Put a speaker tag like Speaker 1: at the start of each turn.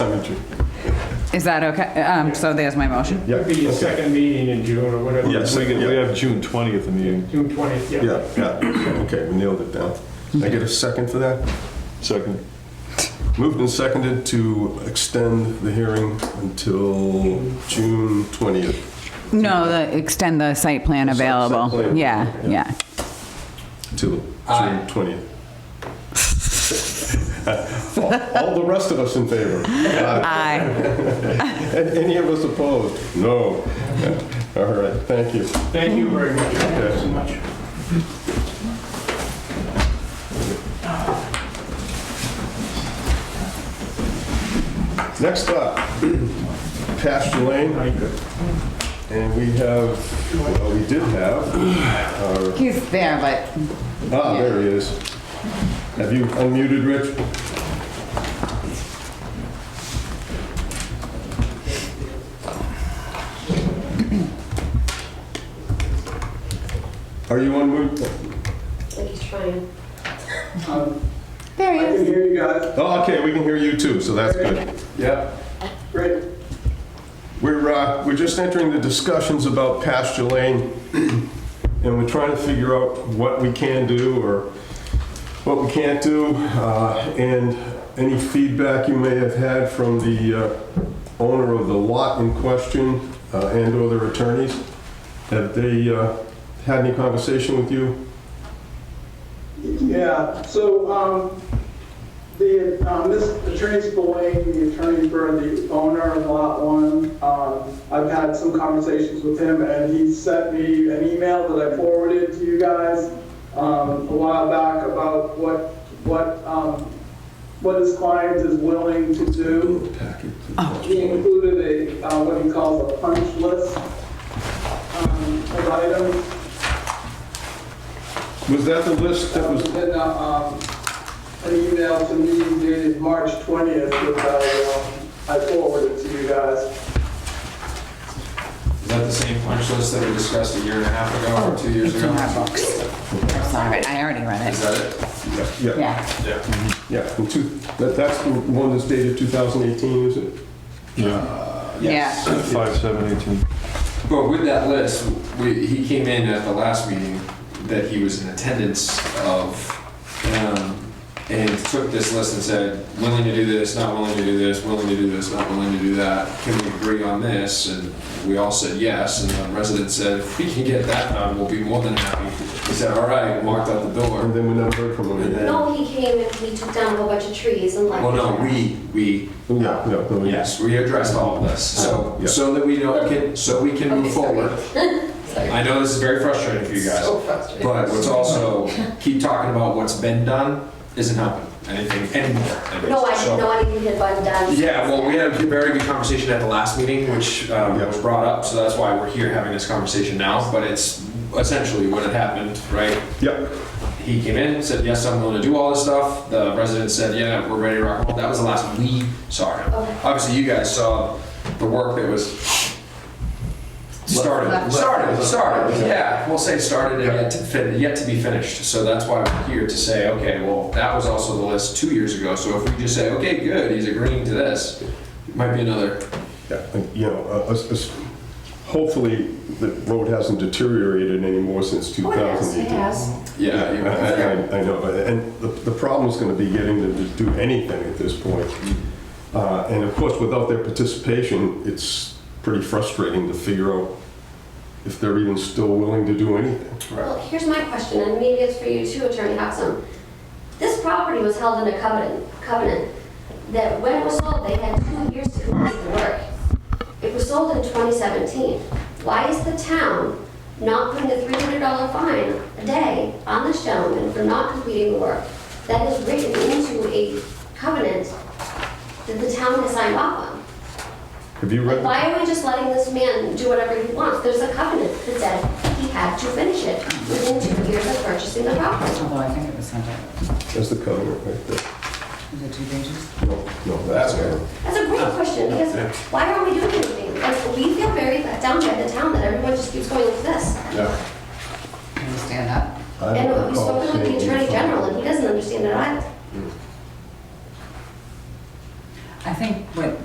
Speaker 1: Cemetery.
Speaker 2: Is that okay? Um, so there's my motion.
Speaker 1: Yeah,
Speaker 3: It'd be your
Speaker 1: okay.
Speaker 3: second meeting in June or whatever.
Speaker 1: Yes.
Speaker 4: We could- we have June 20th meeting.
Speaker 3: June 20th, yeah.
Speaker 1: Yeah, yeah, okay, we nailed it down. Can I get a second for that?
Speaker 4: Second,
Speaker 1: Moved and seconded to extend the hearing until June 20th.
Speaker 2: No, the, extend the site plan
Speaker 1: Site- site
Speaker 2: available.
Speaker 1: plan.
Speaker 2: Yeah, yeah.
Speaker 1: Till June 20th. All all the rest of us in favor? Aye.
Speaker 2: Aye.
Speaker 1: And any of us opposed? No. All right, thank you.
Speaker 3: Thank you very much. Thank you so much.
Speaker 1: Next up, Pasture Lane,
Speaker 3: Thank you.
Speaker 1: and we have, well, we did have, uh,
Speaker 2: He's there, but
Speaker 1: ah, there he is. Have you unmuted, Rich? Are you unmuted?
Speaker 5: think he's trying.
Speaker 2: there
Speaker 6: Um, I
Speaker 2: he
Speaker 6: can
Speaker 2: is.
Speaker 6: hear you guys.
Speaker 1: Oh, okay, we can hear you too, so that's good.
Speaker 6: Yeah. Great.
Speaker 1: We're, uh, we're just entering the discussions about pasture lane, and we're trying to figure out what we can do or what we can't do, uh, and any feedback you may have had from the uh, owner of the lot in question uh, and/or their attorneys. Have they uh, had any conversation with you?
Speaker 6: Yeah, so, um, the, um, this attorney Spillane, the attorney for the owner of Lot One, um, I've had some conversations with him and he sent me an email that I forwarded to you guys, um, a while back about what, what, um, what his client is willing to do. He included a, uh, what he calls a punch list, um, of items
Speaker 1: Was that the list that
Speaker 6: That was
Speaker 1: was,
Speaker 6: in, uh, um, an email to me dated March 20th, which I, um, I forwarded to you guys.
Speaker 7: Is that the same punch list that we discussed a year and a half ago or two years
Speaker 2: Oh, It's
Speaker 7: ago?
Speaker 2: in our books. I'm sorry, I already read
Speaker 7: Is
Speaker 2: it.
Speaker 7: that it?
Speaker 1: yeah,
Speaker 2: Yeah.
Speaker 7: Yeah.
Speaker 1: yeah, from two- that- that's the one that's dated 2018, is it?
Speaker 2: Yeah.
Speaker 4: 5, 7, 18.
Speaker 7: But with that list, we, he came in at the last meeting that he was in attendance of, um, and took this list and said, willing to do this, not willing to do this, willing to do this, not willing to do that. Can we agree on this? And we all said yes, and the resident said, if we can get that done, we'll be more than happy. He said, all right, and walked out the
Speaker 1: And
Speaker 7: door.
Speaker 1: then we never heard from them again.
Speaker 5: No, he came and he took down a whole bunch of trees and like.
Speaker 7: Well, Oh, no, we, we
Speaker 1: Yeah, yeah, no, yeah.
Speaker 7: Yes, we addressed all of this, so,
Speaker 1: Uh, Yeah.
Speaker 7: so that we know, can- so we can move
Speaker 5: Okay, sorry.
Speaker 7: forward. I know this is very frustrating for you guys,
Speaker 5: So frustrating.
Speaker 7: but what's also, keep talking about what's been done isn't helping anything anymore. at
Speaker 5: No, I
Speaker 7: least. So-
Speaker 5: didn't know I didn't get one done.
Speaker 7: Yeah, well, we had a very good conversation at the last meeting, which um,
Speaker 1: Yeah.
Speaker 7: was brought up, so that's why we're here having this conversation now, but it's essentially what had happened, right?
Speaker 1: Yep.
Speaker 7: He came in, said, yes, I'm willing to do all this stuff. The resident said, yeah, we're ready to rock and roll. That was the last we saw him.
Speaker 5: Okay.
Speaker 7: Obviously, you guys saw the work that was started,
Speaker 2: Left.
Speaker 7: started, started, yeah, we'll say started and yet to, fin- yet to be finished. So that's why we're here to say, okay, well, that was also the list two years ago. So if we just say, okay, good, he's agreeing to this, might be another
Speaker 1: Yeah, and, you know, uh, us- us- hopefully the road hasn't deteriorated anymore since
Speaker 5: Oh, yes, it
Speaker 1: 2018.
Speaker 5: has.
Speaker 7: Yeah, you-
Speaker 1: I- I I know, and the the problem is going to be getting them to do anything at this point. Uh, And of course, without their participation, it's pretty frustrating to figure out if they're even still willing to do anything.
Speaker 5: Well, here's my question, and maybe it's for you too, Attorney Hudson. This property was held in a covenant, covenant, that when it was sold, they had two years to complete the work. It was sold in 2017. Why is the town not putting a $300 fine a day on this gentleman for not completing the work? That is written into a covenant that the town has signed off on.
Speaker 1: Have you read?
Speaker 5: Why are we just letting this man do whatever he wants? There's a covenant that said he had to finish it within two years of purchasing the property.
Speaker 2: Although I think it was sent out.
Speaker 1: That's the covenant right there.
Speaker 2: Is it two pages?
Speaker 1: No, no, that's
Speaker 7: That's
Speaker 1: good.
Speaker 7: good.
Speaker 5: That's a great question, because why aren't we doing anything? Like, we feel very let down by the town that everyone just keeps going with this.
Speaker 2: Can you stand up?
Speaker 5: And we've spoken with the attorney general, and he doesn't understand it either.
Speaker 2: I think what